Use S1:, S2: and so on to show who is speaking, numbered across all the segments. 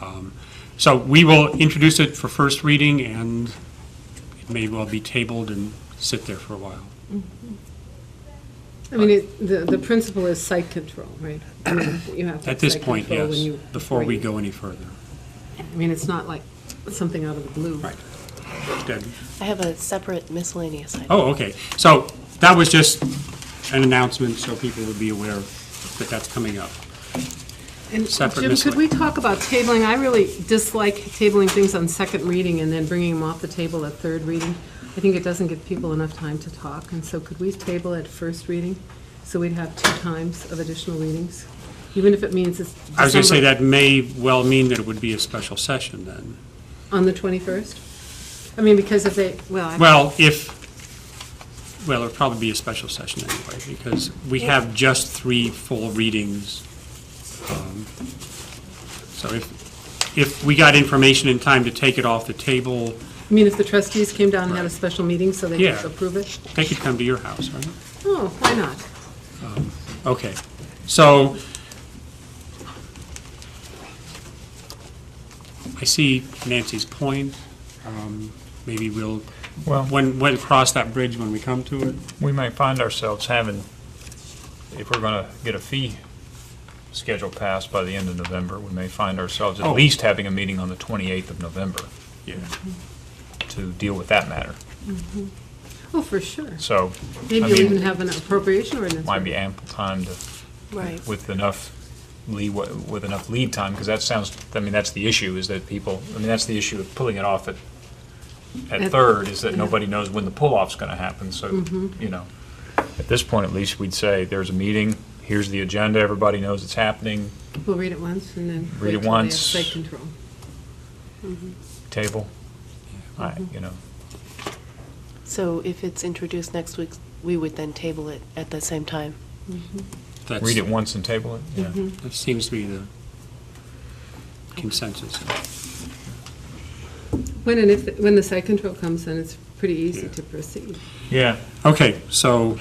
S1: Um, So we will introduce it for first reading, and it may well be tabled and sit there for a while.
S2: I mean, it- the, the principle is site control, right? I mean, you have to
S1: At this
S2: site
S1: point,
S2: control when
S1: yes,
S2: you-
S1: before we
S2: right.
S1: go any further.
S2: I mean, it's not like something out of the blue.
S1: Right. Good.
S3: I have a separate miscellaneous item.
S1: Oh, okay. So that was just an announcement, so people would be aware that that's coming up.
S2: And
S1: Separate
S2: Jim, could
S1: miscellane-
S2: we talk about tabling? I really dislike tabling things on second reading and then bringing them off the table at third reading. I think it doesn't give people enough time to talk, and so could we table at first reading? So we'd have two times of additional readings, even if it means it's
S1: I was going to say
S2: December-
S1: that may well mean that it would be a special session then.
S2: On the 21st? I mean, because if they, well, I-
S1: Well, if, well, it'll probably be a special session anyway, because we have just three full readings. Um, So if, if we got information in time to take it off the table,
S2: I mean, if the trustees came down and had a special meeting so they
S1: Yeah.
S2: could approve it?
S1: they could come to your house, right?
S2: Oh, why not?
S1: Okay, so I see Nancy's point. Um, Maybe we'll,
S4: Well,
S1: when, when, cross that bridge when we come to it.
S4: we may find ourselves having, if we're going to get a fee schedule passed by the end of November, we may find ourselves at
S1: Oh.
S4: least having a meeting on the 28th of November
S1: Yeah.
S4: to deal with that matter.
S2: Oh, for sure.
S4: So, I
S2: Maybe you'll even
S4: mean,
S2: have an appropriation ordinance.
S4: might be ample time to,
S3: Right.
S4: with enough leeway, with enough lead time, because that sounds, I mean, that's the issue, is that people, I mean, that's the issue of pulling it off at,
S2: At-
S4: at third, is that
S2: yeah.
S4: nobody knows when the pull-off's going to happen, so, you know. At this point, at least, we'd say, there's a meeting, here's the agenda, everybody knows it's happening,
S2: We'll read it once and then.
S4: Read
S2: wait till
S4: it
S2: they have
S4: once.
S2: Site control.
S4: table, I- you know.
S3: So if it's introduced next week, we would then table it at the same time.
S1: That's,
S4: Read it once and table it, yeah.
S1: that seems to be the consensus.
S2: When and if, when the site control comes in, it's pretty easy
S1: Yeah.
S2: to proceed.
S4: Yeah.
S1: Okay, so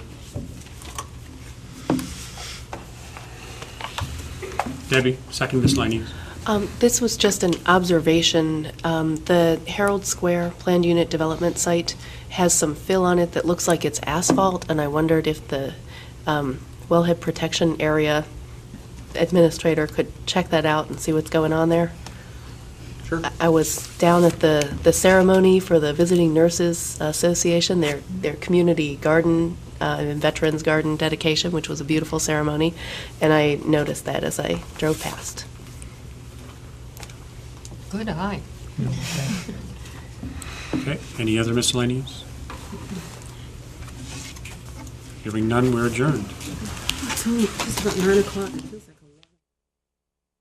S1: Debbie, second miscellaneous.
S3: Um, This was just an observation. Um, The Herald Square Planned Unit Development Site has some fill on it that looks like it's asphalt, and I wondered if the um, wellhead protection area administrator could check that out and see what's going on there.
S1: Sure.
S3: I- I was down at the, the ceremony for the Visiting Nurses Association, their, their community garden, uh, and Veterans Garden dedication, which was a beautiful ceremony, and I noticed that as I drove past.
S2: Good eye.
S1: Okay, any other miscellaneous? Hearing none, we're adjourned.
S2: It's only just about nine o'clock. It feels like a lot.